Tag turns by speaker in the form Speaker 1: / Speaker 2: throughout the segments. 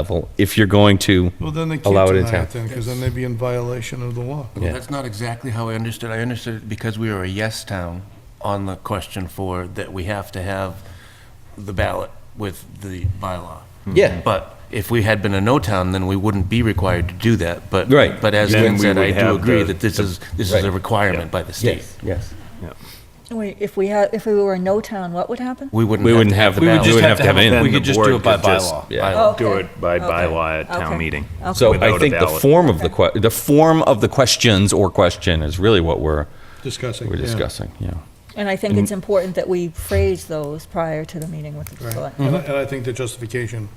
Speaker 1: level if you're going to
Speaker 2: Well, then they can't
Speaker 1: allow it in
Speaker 2: deny
Speaker 1: town.
Speaker 2: it then, because then they'd be in violation of the law.
Speaker 1: Yeah.
Speaker 3: Well, that's not exactly how I understood. I understood it because we were a yes town on the question for that we have to have the ballot with the bylaw.
Speaker 1: Hmm. Yeah.
Speaker 3: But if we had been a no town, then we wouldn't be required to do that. But
Speaker 1: Right.
Speaker 3: But as
Speaker 4: Then
Speaker 3: Lynn
Speaker 4: we
Speaker 3: said, I
Speaker 4: would
Speaker 3: do
Speaker 4: have
Speaker 3: agree
Speaker 4: the-
Speaker 3: that this is, this
Speaker 1: Right.
Speaker 3: is a requirement by the state.
Speaker 1: yes.
Speaker 5: Wait, If we had, if we were a no town, what would happen?
Speaker 3: We wouldn't.
Speaker 1: We wouldn't have the
Speaker 3: the
Speaker 4: We would
Speaker 1: ballot.
Speaker 4: just have to have it
Speaker 1: it in.
Speaker 4: then
Speaker 6: We
Speaker 4: the
Speaker 6: could just do
Speaker 4: board
Speaker 6: it by
Speaker 4: could just-
Speaker 6: bylaw.
Speaker 1: Yeah.
Speaker 5: Oh,
Speaker 4: Do
Speaker 5: okay.
Speaker 4: it by
Speaker 5: Okay.
Speaker 4: bylaw at
Speaker 5: Okay.
Speaker 4: town meeting.
Speaker 5: Okay.
Speaker 1: So
Speaker 4: Without
Speaker 1: I
Speaker 4: a
Speaker 1: think the
Speaker 4: ballot.
Speaker 1: form of the que, the form of the questions or question is really what we're,
Speaker 2: Discussing.
Speaker 1: we're
Speaker 2: yeah.
Speaker 1: discussing, yeah.
Speaker 5: And I think it's important that we phrase those prior to the meeting with the
Speaker 2: Right.
Speaker 5: select.
Speaker 2: And I- and I think the justification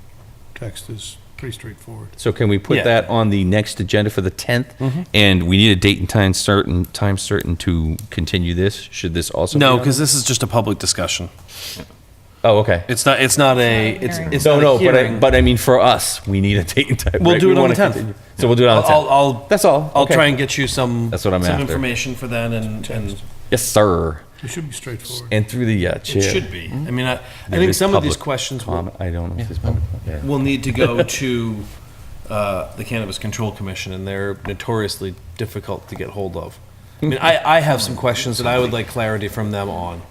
Speaker 2: text is pretty straightforward.
Speaker 1: So can we put
Speaker 6: Yeah. Mm-hmm.
Speaker 1: that on the next agenda for the 10th? And we need a date and time certain, time certain to continue this? Should this also? be
Speaker 6: No,
Speaker 1: on?
Speaker 6: because this is just a public discussion.
Speaker 1: Oh, okay.
Speaker 6: It's not. It's not a. It's.
Speaker 5: hearing.
Speaker 6: it's
Speaker 1: No,
Speaker 6: not a
Speaker 1: no, but I,
Speaker 6: hearing.
Speaker 1: but I mean, for us, we need a date and time.
Speaker 6: We'll
Speaker 1: right?
Speaker 6: do
Speaker 1: We
Speaker 6: it on
Speaker 1: wanna
Speaker 6: the 10th.
Speaker 1: continue. So we'll do it on the 10th.
Speaker 6: I'll, I'll.
Speaker 1: That's all.
Speaker 6: I'll
Speaker 1: Okay.
Speaker 6: try and get you some.
Speaker 1: That's what I'm
Speaker 6: some
Speaker 1: after.
Speaker 6: information for then, and and
Speaker 1: Yes, sir.
Speaker 2: It should be straightforward.
Speaker 1: And through the uh,
Speaker 6: it
Speaker 1: chair.
Speaker 6: should be. I mean, I, I
Speaker 1: There
Speaker 6: think
Speaker 1: is
Speaker 6: some of these
Speaker 1: public
Speaker 6: questions will,
Speaker 1: comment. I don't know if there's public. yeah.
Speaker 6: will need to go to uh, the Cannabis Control Commission, and they're notoriously difficult to get hold of. I mean, I, I have some questions that I would like clarity from them on.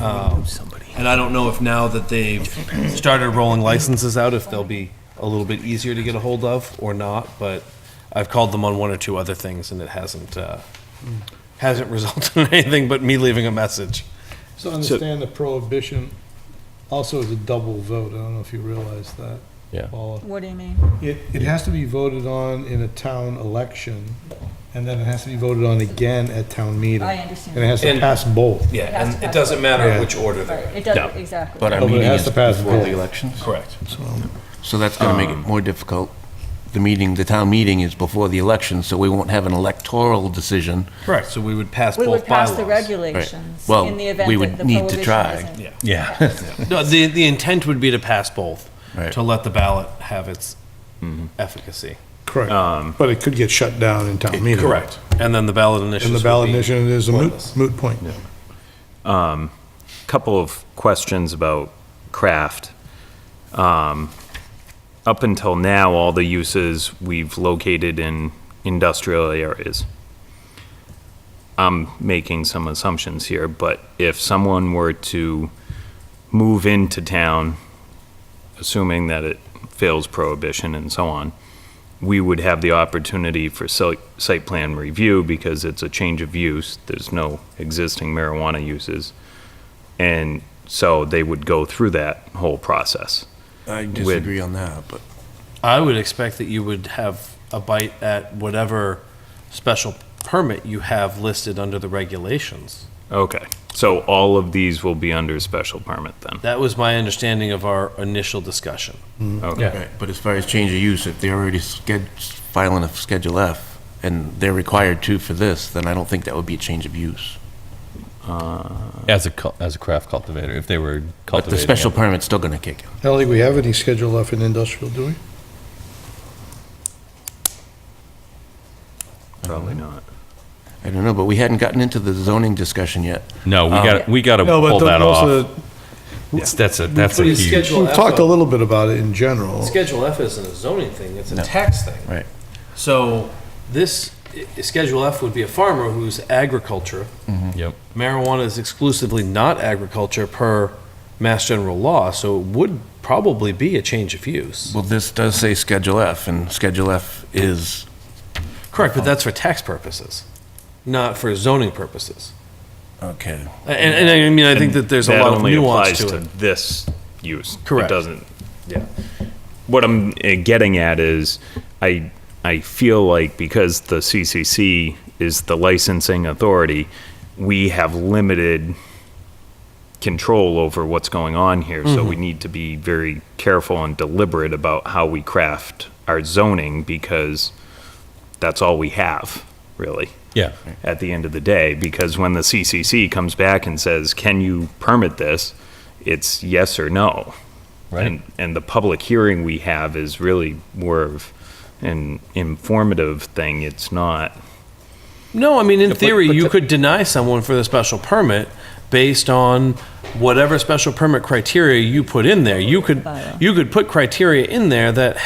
Speaker 6: Um, And I don't know if now that they've started rolling licenses out, if they'll be a little bit easier to get a hold of or not, but I've called them on one or two other things, and it hasn't, uh, hasn't resulted in anything but me leaving a message.
Speaker 2: So understand the prohibition also is a double vote. I don't know if you realize that.
Speaker 1: Yeah.
Speaker 2: Paula.
Speaker 5: What do you mean?
Speaker 2: It, it has to be voted on in a town election, and then it has to be voted on again at town meeting.
Speaker 5: I
Speaker 2: And
Speaker 5: understand.
Speaker 2: it has to
Speaker 6: And-
Speaker 2: pass both.
Speaker 1: um,
Speaker 6: Yeah, and it doesn't matter which order they're in.
Speaker 5: Right, It
Speaker 6: No.
Speaker 5: doesn't, exactly.
Speaker 3: But our
Speaker 2: But it
Speaker 3: meeting
Speaker 2: has
Speaker 3: is
Speaker 2: to pass
Speaker 3: before
Speaker 2: both.
Speaker 3: the elections.
Speaker 6: Correct.
Speaker 3: So that's going to
Speaker 1: um,
Speaker 3: make it more difficult. The meeting, the town meeting is before the election, so we won't have an electoral decision.
Speaker 6: Correct. So we would pass
Speaker 5: We would
Speaker 6: both
Speaker 5: pass the
Speaker 6: bylaws.
Speaker 5: regulations
Speaker 3: Well,
Speaker 5: in the event
Speaker 3: we
Speaker 5: that
Speaker 3: would
Speaker 5: the
Speaker 3: need to
Speaker 5: prohibition
Speaker 3: try.
Speaker 5: isn't.
Speaker 6: Yeah. No, the, the intent would be to pass both,
Speaker 3: Right.
Speaker 6: to let the ballot have its efficacy.
Speaker 2: Correct. But it could get shut down in town meeting.
Speaker 6: And then the ballot initiative.
Speaker 2: And the ballot initiative is a moot, moot point.
Speaker 4: Couple of questions about craft. Um, Up until now, all the uses we've located in industrial areas. I'm making some assumptions here, but if someone were to move into town, assuming that it fails prohibition and so on, we would have the opportunity for si- site plan review because it's a change of use. There's no existing marijuana uses. And so they would go through that whole process.
Speaker 3: I disagree on that, but.
Speaker 6: I would expect that you would have a bite at whatever special permit you have listed under the regulations.
Speaker 4: Okay, so all of these will be under special permit then?
Speaker 6: That was my understanding of our initial discussion.
Speaker 4: Okay.
Speaker 3: Right, but as far as change of use, if they're already sched- filing a Schedule F, and they're required to for this, then I don't think that would be a change of use.
Speaker 1: As a, cul- as a craft cultivator, if they were
Speaker 3: But
Speaker 1: cultivating.
Speaker 3: the special
Speaker 1: it.
Speaker 3: permit's still gonna kick in.
Speaker 2: I don't think we have any schedule F in industrial, do we?
Speaker 4: Probably not.
Speaker 3: I don't know, but we hadn't gotten into the zoning discussion yet.
Speaker 1: No, we got, we got to
Speaker 2: No,
Speaker 1: pull
Speaker 2: but
Speaker 1: that
Speaker 2: those
Speaker 1: off.
Speaker 2: are,
Speaker 1: It's, that's a, that's a
Speaker 6: Please
Speaker 1: huge.
Speaker 6: schedule
Speaker 2: we've
Speaker 6: F
Speaker 2: talked a
Speaker 6: up.
Speaker 2: little bit about it in general.
Speaker 6: Schedule F isn't a zoning thing, it's a tax thing.
Speaker 3: Right.
Speaker 6: So this, i- Schedule F would be a farmer who's agriculture.
Speaker 1: Yep.
Speaker 6: Marijuana is exclusively not agriculture per Mass General Law, so it would probably be a change of use.
Speaker 3: Well, this does say Schedule F, and Schedule F is,
Speaker 6: Correct, but that's for tax purposes, not for zoning purposes.
Speaker 3: okay.
Speaker 6: And, and I mean, I think that there's a
Speaker 4: That
Speaker 6: lot of
Speaker 4: only
Speaker 6: nuance
Speaker 4: applies
Speaker 6: to it.
Speaker 4: This use.
Speaker 6: Correct.
Speaker 4: It doesn't, yeah. What I'm uh, getting at is, I, I feel like because the CCC is the licensing authority, we have limited control over what's going on here,
Speaker 6: Mm-hmm.
Speaker 4: so we need to be very careful and deliberate about how we craft our zoning, because that's all we have, really
Speaker 1: Yeah.
Speaker 4: at the end of the day, because when the CCC comes back and says, can you permit this? It's yes or no.
Speaker 1: Right.
Speaker 4: And, and the public hearing we have is really more of an informative thing. It's not,
Speaker 6: No, I mean, in
Speaker 1: but-
Speaker 6: theory,
Speaker 1: but
Speaker 6: you
Speaker 1: the-
Speaker 6: could deny someone for the special permit based on whatever special permit criteria you put in there. You could,
Speaker 5: Bylaw.
Speaker 6: you could put criteria in there that